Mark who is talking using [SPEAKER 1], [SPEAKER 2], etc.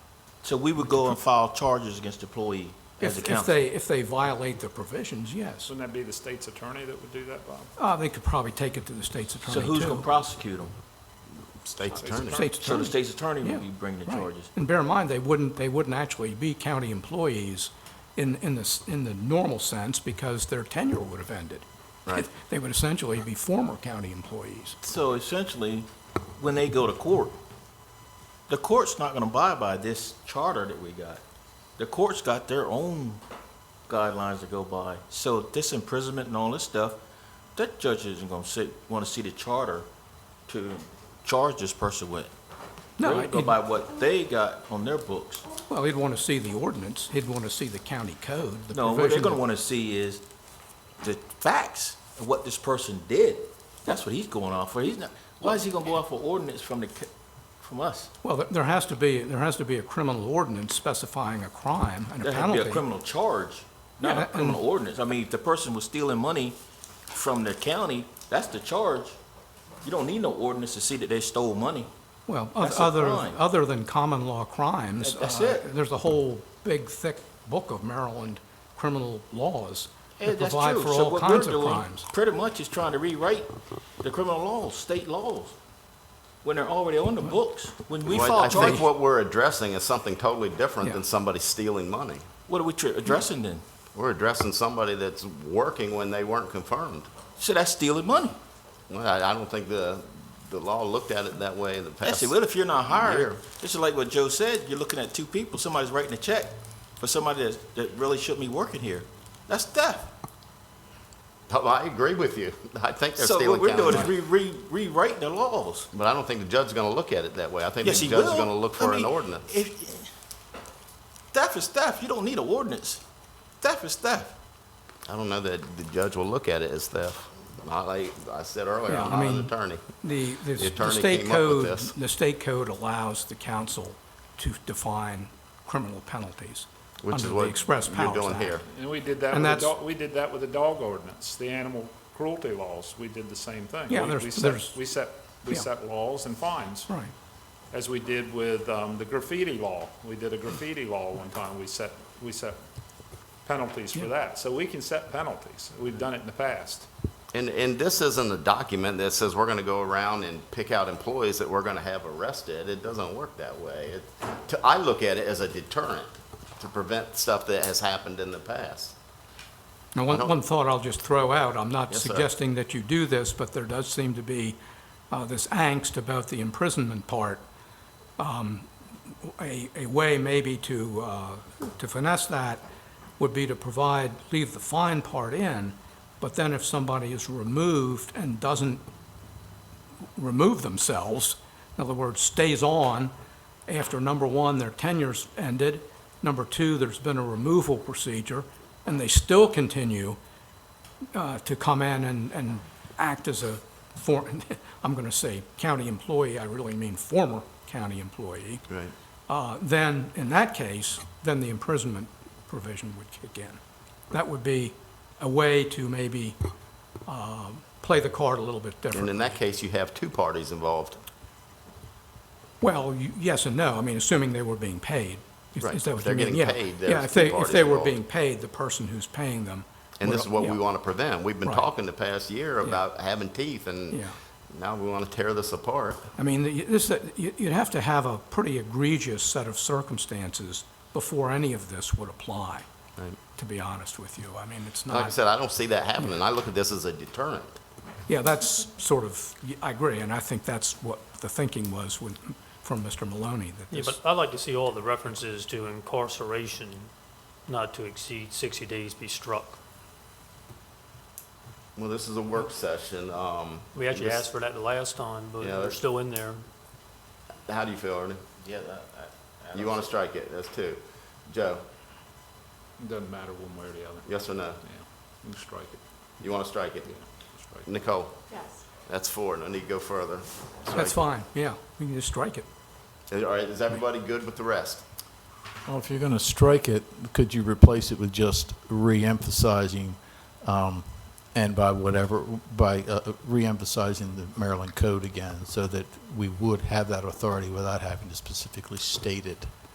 [SPEAKER 1] So we would go and file charges against the employee as a
[SPEAKER 2] If, if
[SPEAKER 1] council?
[SPEAKER 2] they, if they violate the provisions, yes.
[SPEAKER 3] Wouldn't that be the state's attorney that would do that, Bob?
[SPEAKER 2] Uh, they could probably take it to the state's attorney,
[SPEAKER 1] So
[SPEAKER 2] too.
[SPEAKER 1] who's gonna prosecute them?
[SPEAKER 4] State's
[SPEAKER 3] attorney.
[SPEAKER 4] attorney.
[SPEAKER 2] State's
[SPEAKER 1] So the
[SPEAKER 2] attorney.
[SPEAKER 1] state's attorney
[SPEAKER 2] Yeah,
[SPEAKER 1] would be bringing the
[SPEAKER 2] right.
[SPEAKER 1] charges?
[SPEAKER 2] And bear in mind, they wouldn't, they wouldn't actually be county employees in, in the, s- in the normal sense because their tenure would have ended.
[SPEAKER 4] Right.
[SPEAKER 2] They would essentially be former county employees.
[SPEAKER 1] So essentially, when they go to court, the court's not gonna abide by this charter that we got. The court's got their own guidelines to go by. So this imprisonment and all this stuff, that judge isn't gonna see, wanna see the charter to charge this person with.
[SPEAKER 2] No,
[SPEAKER 1] They'll go
[SPEAKER 2] he'd-
[SPEAKER 1] by what they got on their books.
[SPEAKER 2] well, he'd want to see the ordinance, he'd want to see the county code, the
[SPEAKER 1] No, what they're
[SPEAKER 2] provision
[SPEAKER 1] gonna
[SPEAKER 2] that-
[SPEAKER 1] wanna see is the facts of what this person did. That's what he's going off for. He's not, why is he gonna go off for ordinance from the, c- from us?
[SPEAKER 2] Well, there- there has to be, there has to be a criminal ordinance specifying a crime and a
[SPEAKER 1] There had
[SPEAKER 2] penalty.
[SPEAKER 1] to be a criminal charge, not
[SPEAKER 2] Yeah,
[SPEAKER 1] a
[SPEAKER 2] and-
[SPEAKER 1] criminal ordinance. I mean, if the person was stealing money from the county, that's the charge. You don't need no ordinance to see that they stole money.
[SPEAKER 2] Well, oth-
[SPEAKER 1] That's a
[SPEAKER 2] other,
[SPEAKER 1] crime.
[SPEAKER 2] other than common law crimes.
[SPEAKER 1] That- that's
[SPEAKER 2] uh,
[SPEAKER 1] it.
[SPEAKER 2] There's a whole big, thick book of Maryland criminal laws
[SPEAKER 1] Yeah,
[SPEAKER 2] that
[SPEAKER 1] that's
[SPEAKER 2] provide
[SPEAKER 1] true.
[SPEAKER 2] for
[SPEAKER 1] So
[SPEAKER 2] all
[SPEAKER 1] what we're
[SPEAKER 2] kinds of
[SPEAKER 1] doing
[SPEAKER 2] crimes.
[SPEAKER 1] pretty much is trying to rewrite the criminal laws, state laws, when they're already on the books. When we
[SPEAKER 4] Well, I
[SPEAKER 1] file charges,
[SPEAKER 4] think what we're addressing is something totally different
[SPEAKER 2] Yeah.
[SPEAKER 4] than somebody stealing money.
[SPEAKER 1] what are we tr- addressing then?
[SPEAKER 4] We're addressing somebody that's working when they weren't confirmed.
[SPEAKER 1] So that's stealing money.
[SPEAKER 4] Well, I, I don't think the, the law looked at it that way in the
[SPEAKER 1] I
[SPEAKER 4] past.
[SPEAKER 1] said, well, if you're not hired,
[SPEAKER 4] year.
[SPEAKER 1] this is like what Joe said, you're looking at two people, somebody's writing a check for somebody that, that really shouldn't be working here. That's theft.
[SPEAKER 4] Oh, I agree with you. I think they're
[SPEAKER 1] So what
[SPEAKER 4] stealing
[SPEAKER 1] we're
[SPEAKER 4] county
[SPEAKER 1] doing is
[SPEAKER 4] money.
[SPEAKER 1] re, re, rewriting the laws.
[SPEAKER 4] But I don't think the judge is gonna look at it that way. I think the
[SPEAKER 1] Yes, he
[SPEAKER 4] judge is
[SPEAKER 1] will.
[SPEAKER 4] gonna look
[SPEAKER 1] I
[SPEAKER 4] for an
[SPEAKER 1] mean,
[SPEAKER 4] ordinance.
[SPEAKER 1] if- Theft is theft. You don't need an ordinance. Theft is theft.
[SPEAKER 4] I don't know that the judge will look at it as theft. I, like I said earlier,
[SPEAKER 2] Yeah,
[SPEAKER 4] I'm
[SPEAKER 2] I
[SPEAKER 4] not an
[SPEAKER 2] mean-
[SPEAKER 4] attorney.
[SPEAKER 2] The, the s- the
[SPEAKER 4] attorney
[SPEAKER 2] state
[SPEAKER 4] came up with
[SPEAKER 2] code,
[SPEAKER 4] this.
[SPEAKER 2] the state code allows the council to define criminal penalties
[SPEAKER 4] Which is
[SPEAKER 2] under the
[SPEAKER 4] what
[SPEAKER 2] Express
[SPEAKER 4] you're
[SPEAKER 2] Powers
[SPEAKER 4] doing
[SPEAKER 2] Act.
[SPEAKER 4] here.
[SPEAKER 3] And we did that
[SPEAKER 2] And
[SPEAKER 3] with the
[SPEAKER 2] that's-
[SPEAKER 3] dog, we did that with the dog ordinance, the animal cruelty laws. We did the same thing.
[SPEAKER 2] Yeah,
[SPEAKER 3] We-
[SPEAKER 2] there's-
[SPEAKER 3] we set-
[SPEAKER 2] there's-
[SPEAKER 3] We set, we
[SPEAKER 2] Yeah.
[SPEAKER 3] set laws and fines,
[SPEAKER 2] Right.
[SPEAKER 3] as we did with um, the graffiti law. We did a graffiti law one time. We set, we set penalties for that. So we can set penalties. We've done it in the past.
[SPEAKER 4] And, and this isn't a document that says we're gonna go around and pick out employees that we're gonna have arrested. It doesn't work that way. It, to, I look at it as a deterrent to prevent stuff that has happened in the past.
[SPEAKER 2] Now,
[SPEAKER 4] I
[SPEAKER 2] one,
[SPEAKER 4] don't-
[SPEAKER 2] one thought I'll just throw out, I'm not
[SPEAKER 4] Yes, sir.
[SPEAKER 2] suggesting that you do this, but there does seem to be uh, this angst about the imprisonment part. Um, A, a way maybe to, uh, to finesse that would be to provide, leave the fine part in, but then if somebody is removed and doesn't remove themselves, in other words, stays on after, number one, their tenure's ended, number two, there's been a removal procedure, and they still continue uh, to come in and, and act as a, for, I'm going to say county employee, I really mean former county employee.
[SPEAKER 4] Right.
[SPEAKER 2] Uh, Then, in that case, then the imprisonment provision would kick in. That would be a way to maybe uh, play the card a little bit differently.
[SPEAKER 4] And in that case, you have two parties involved.
[SPEAKER 2] Well, you- yes and no. I mean, assuming they were being paid. Is-
[SPEAKER 4] Right.
[SPEAKER 2] Is that what
[SPEAKER 4] If they're
[SPEAKER 2] you mean?
[SPEAKER 4] getting
[SPEAKER 2] Yeah.
[SPEAKER 4] paid,
[SPEAKER 2] Yeah,
[SPEAKER 4] there's
[SPEAKER 2] if they, if
[SPEAKER 4] two parties
[SPEAKER 2] they were
[SPEAKER 4] involved.
[SPEAKER 2] being paid, the person who's paying them.
[SPEAKER 4] And
[SPEAKER 2] would-
[SPEAKER 4] this is what
[SPEAKER 2] yeah.
[SPEAKER 4] we want to prevent. We've been
[SPEAKER 2] Right.
[SPEAKER 4] talking the past year
[SPEAKER 2] Yeah.
[SPEAKER 4] about having teeth, and
[SPEAKER 2] Yeah.
[SPEAKER 4] now we want to tear this apart.
[SPEAKER 2] I mean, the- this, you- you'd have to have a pretty egregious set of circumstances before any of this would apply,
[SPEAKER 4] Right. Oh,
[SPEAKER 2] to be honest with you. I mean, it's
[SPEAKER 4] Like I
[SPEAKER 2] not,
[SPEAKER 4] said, I don't see that happening. I look at this as a deterrent.
[SPEAKER 2] yeah, that's sort of, I agree, and I think that's what the thinking was with, from Mr. Maloney, that
[SPEAKER 5] Yeah,
[SPEAKER 2] this,
[SPEAKER 5] but I'd like to see all the references to incarceration not to exceed 60 days be struck.
[SPEAKER 4] Well, this is a work session. Um,
[SPEAKER 5] We actually
[SPEAKER 4] this-
[SPEAKER 5] asked for that the last time, but
[SPEAKER 4] Yeah,
[SPEAKER 5] they're
[SPEAKER 4] that's-
[SPEAKER 5] still in there.
[SPEAKER 4] How do you feel, Ernie?
[SPEAKER 1] Yeah,
[SPEAKER 4] You want to strike it? That's two. Joe,
[SPEAKER 3] It Doesn't matter one way or the other.
[SPEAKER 4] yes or no?
[SPEAKER 3] Yeah, you can strike it.
[SPEAKER 4] You want to strike it?
[SPEAKER 3] Yeah, strike it.
[SPEAKER 4] Nicole,
[SPEAKER 6] Yes.
[SPEAKER 4] that's four. No need to go further.
[SPEAKER 2] that's fine, yeah, we can just strike it.
[SPEAKER 4] All right, is everybody good with the rest?
[SPEAKER 7] Well, Oh, if you're going to strike it, could you replace it with just re-emphasizing, um, and by whatever, by uh, re-emphasizing the Maryland code again, so that we would have that authority without having to specifically state it?